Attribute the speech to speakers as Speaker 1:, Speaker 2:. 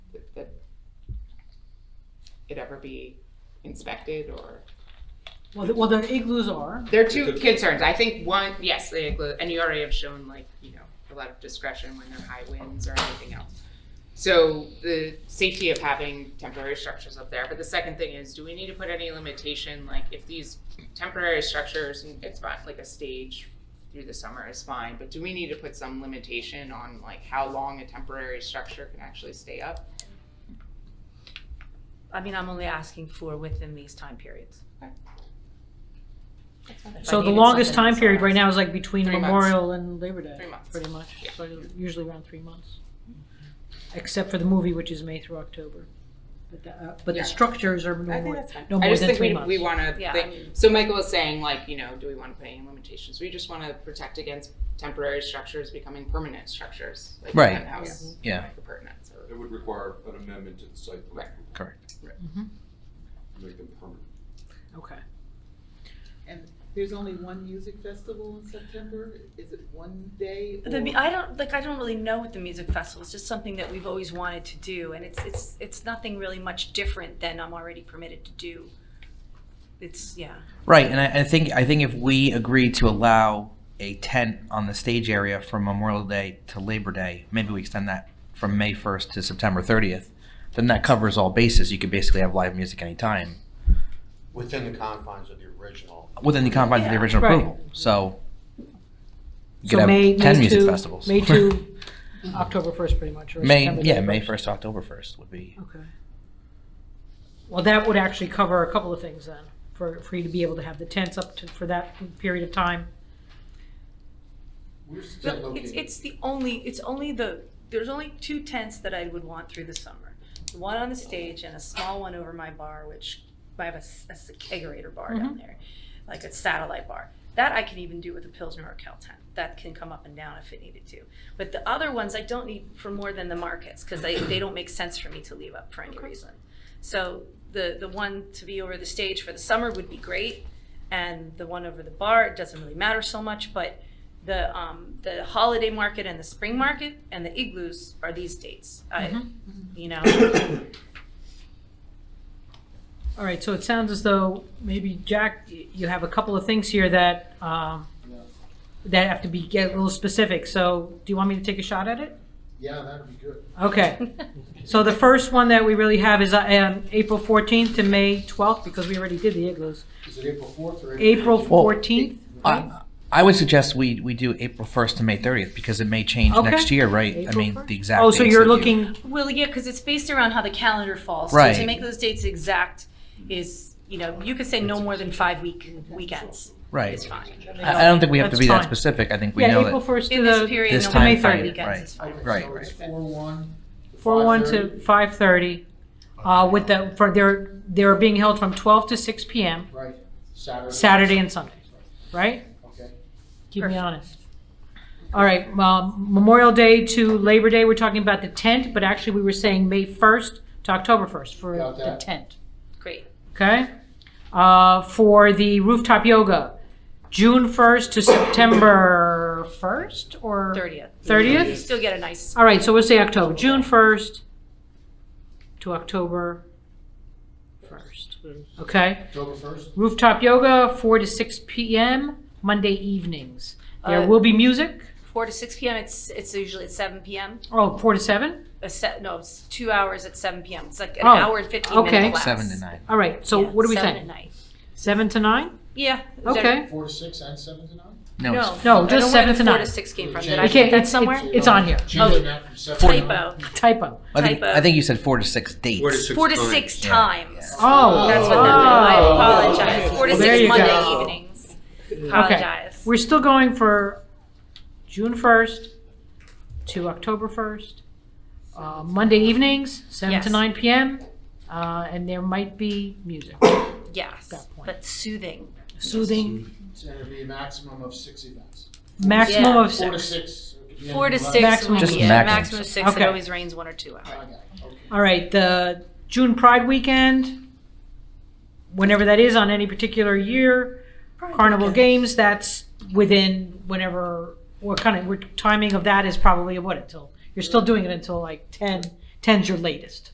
Speaker 1: it ever be inspected or?
Speaker 2: Well, th- well, the igloos are.
Speaker 1: There are two concerns. I think one, yes, they include, and you already have shown like, you know, a lot of discretion when there are high winds or anything else. So the safety of having temporary structures up there, but the second thing is, do we need to put any limitation, like if these temporary structures, and it's fine, like a stage through the summer is fine, but do we need to put some limitation on like how long a temporary structure can actually stay up?
Speaker 3: I mean, I'm only asking for within these time periods.
Speaker 1: Okay.
Speaker 3: If I
Speaker 2: So the
Speaker 3: needed
Speaker 2: longest
Speaker 3: something
Speaker 2: time
Speaker 3: that's
Speaker 2: period right
Speaker 3: last-
Speaker 2: now is like between
Speaker 1: Three months.
Speaker 2: Memorial and Labor Day.
Speaker 1: Three months.
Speaker 2: Pretty much,
Speaker 1: Yeah.
Speaker 2: so usually around three months. Except for the movie, which is May through October. But the, uh, but
Speaker 1: Yeah.
Speaker 2: the structures are no
Speaker 1: I think
Speaker 2: more,
Speaker 1: that's fine.
Speaker 2: no
Speaker 1: I
Speaker 2: more
Speaker 1: just
Speaker 2: than
Speaker 1: think
Speaker 2: three
Speaker 1: we, we
Speaker 2: months.
Speaker 1: wanna,
Speaker 3: Yeah, I
Speaker 1: think-
Speaker 3: mean-
Speaker 1: so Michael was saying like, you know, do we wanna put any limitations? We just wanna protect against temporary structures becoming permanent structures. like
Speaker 4: Right.
Speaker 1: that house,
Speaker 4: Yeah.
Speaker 1: like a pertinence or-
Speaker 5: It would require an amendment to the site plan.
Speaker 4: Correct.
Speaker 5: to Make them permanent.
Speaker 2: Okay.
Speaker 6: And there's only one music festival in September? Is it one day?
Speaker 3: The,
Speaker 6: or-
Speaker 3: mu- I don't, like, I don't really know what the music festival, it's just something that we've always wanted to do, and it's, it's, it's nothing really much different than I'm already permitted to do. It's, yeah,
Speaker 4: Right, and I, I think I think if we agree to allow a tent on the stage area from Memorial Day to Labor Day, maybe we extend that from May first to September thirtieth, then that covers all bases. You could basically have live music anytime
Speaker 7: Within the confines of the original.
Speaker 4: within the confines of
Speaker 3: Yeah.
Speaker 4: the original
Speaker 2: Right.
Speaker 4: approval. So you
Speaker 2: So
Speaker 4: could have
Speaker 2: May-
Speaker 4: ten
Speaker 2: May
Speaker 4: music
Speaker 2: to-
Speaker 4: festivals.
Speaker 2: May to October first, pretty much, or
Speaker 4: May
Speaker 2: September
Speaker 4: yeah, May
Speaker 2: 31st.
Speaker 4: first, October first would be
Speaker 2: Okay. Well, that would actually cover a couple of things then, for, for you to be able to have the tents up to, for that period of time.
Speaker 7: We're still
Speaker 3: But it's,
Speaker 7: looking,
Speaker 3: it's the only, it's only the, there's only two tents that I would want through the summer. The One on the stage and a small one over my bar, which I have a, s- a s- a kegerator bar down there, like a satellite bar. That I can even do with a Pilsner or Cal tent. That can come up and down if it needed to. But the other ones I don't need for more than the markets, because they, they don't make sense for me to leave up for any reason. So the, the one to be over the stage for the summer would be great, and the one over the bar, it doesn't really matter so much, but the, um, the holiday market and the spring market and the igloos are these dates. I,
Speaker 4: Mm-hmm.
Speaker 3: you know,
Speaker 2: All right, so it sounds as though maybe, Jack, y- you have a couple of things here that, um, that have to be, get a little specific, so do you want me to take a shot at it?
Speaker 7: yeah, that'd be good.
Speaker 2: Okay, so the first one that we really have is, uh, um, April fourteenth to May twelfth, because we already did the igloos.
Speaker 7: Is it April fourth or?
Speaker 2: April
Speaker 4: Well-
Speaker 2: fourteenth?
Speaker 4: I, I would suggest we, we do April 1st to May 30th because it may change
Speaker 2: Okay.
Speaker 4: next year, right? I
Speaker 2: April
Speaker 4: mean,
Speaker 2: 1st.
Speaker 4: the exact.
Speaker 2: Oh, so
Speaker 4: dates
Speaker 2: you're
Speaker 4: that you-
Speaker 2: looking,
Speaker 3: well, yeah, because it's based around how the calendar falls. So To
Speaker 4: Right.
Speaker 3: make those dates exact is, you know, you could say no more than five week, weekends
Speaker 4: Right.
Speaker 3: is fine.
Speaker 4: I, I don't think we have
Speaker 2: That's
Speaker 4: to be that
Speaker 2: fine.
Speaker 4: specific. I think we
Speaker 2: yeah,
Speaker 4: know
Speaker 2: April
Speaker 4: that.
Speaker 2: first to
Speaker 3: In this
Speaker 2: the,
Speaker 3: period,
Speaker 4: This
Speaker 3: no more
Speaker 4: time
Speaker 3: than
Speaker 4: frame,
Speaker 3: five weekends
Speaker 4: right.
Speaker 3: is fine.
Speaker 4: Right,
Speaker 7: So it's
Speaker 4: right.
Speaker 7: four one.
Speaker 2: four one to five thirty, uh, with the, for, they're, they're being held from twelve to six PM,
Speaker 7: Right, Saturday.
Speaker 2: Saturday and Sunday, right?
Speaker 7: Okay.
Speaker 2: Keep me
Speaker 3: Perfect.
Speaker 2: honest. All right, um, Memorial Day to Labor Day, we're talking about the tent, but actually, we were saying May 1st to October 1st for
Speaker 7: Got
Speaker 2: the
Speaker 7: that.
Speaker 2: tent,
Speaker 3: Great.
Speaker 2: okay? Uh, For the rooftop yoga, June 1st to September 1st or?
Speaker 3: Thirtieth.
Speaker 2: 30th?
Speaker 3: You still get a nice,
Speaker 2: All right, so we'll say October, June 1st to October 1st, okay?
Speaker 7: October first?
Speaker 2: Rooftop yoga, 4 to 6 PM, Monday evenings. There
Speaker 3: Uh,
Speaker 2: will be music,
Speaker 3: four to six PM, it's, it's usually at seven PM.
Speaker 2: oh, 4 to 7?
Speaker 3: a set, no, it's two hours at seven PM. It's like an
Speaker 2: Oh,
Speaker 3: hour and fifteen
Speaker 2: okay.
Speaker 3: minute class.
Speaker 4: Seven to nine.
Speaker 2: All right, so
Speaker 3: Yeah,
Speaker 2: what do we
Speaker 3: Seven at
Speaker 2: think?
Speaker 3: night.
Speaker 2: Seven to nine?
Speaker 3: Yeah. is that-
Speaker 2: Okay.
Speaker 7: Four to six and seven to nine?
Speaker 4: No,
Speaker 2: No,
Speaker 4: it's
Speaker 3: I
Speaker 2: just
Speaker 3: don't know where
Speaker 2: seven
Speaker 3: the
Speaker 2: to
Speaker 3: Four
Speaker 2: nine.
Speaker 3: to six came from.
Speaker 7: Okay.
Speaker 3: Did I
Speaker 7: You
Speaker 3: get
Speaker 2: can't-
Speaker 3: that
Speaker 2: it's-
Speaker 3: somewhere?
Speaker 2: It's on here.
Speaker 7: Changing that from seven to nine?
Speaker 3: Typo.
Speaker 2: Typo.
Speaker 4: I think,
Speaker 3: typo.
Speaker 4: I think you said four to six dates.
Speaker 3: Four to six
Speaker 4: Yeah,
Speaker 3: times.
Speaker 2: Oh,
Speaker 3: That's what that
Speaker 2: oh.
Speaker 3: meant. I apologize. Four to
Speaker 2: Well, there
Speaker 3: six
Speaker 2: you
Speaker 3: Monday
Speaker 2: go.
Speaker 3: evenings. Apologize.
Speaker 2: We're still going for June first to October first, uh, Monday evenings, seven to
Speaker 3: Yes.
Speaker 2: nine PM, uh, and there might be music,
Speaker 3: Yes,
Speaker 2: that point.
Speaker 3: but soothing.
Speaker 2: soothing,
Speaker 7: It's gonna be a maximum of six events.
Speaker 2: maximum
Speaker 3: Yeah.
Speaker 2: of
Speaker 7: Four to
Speaker 2: six.
Speaker 7: six. It could be
Speaker 3: Four to
Speaker 7: anything
Speaker 3: six
Speaker 2: Maximum
Speaker 3: would
Speaker 4: Just
Speaker 3: be it.
Speaker 4: maximum.
Speaker 3: Maximum six. It
Speaker 2: Okay.
Speaker 3: always rains one or two
Speaker 7: less. I
Speaker 3: hours.
Speaker 7: got it, okay.
Speaker 2: All right, the June Pride Weekend, whenever that is on any particular year, Carnival Games, that's within whenever, what kind of, what timing of that is probably what until, you're still doing it until like ten, ten's your latest.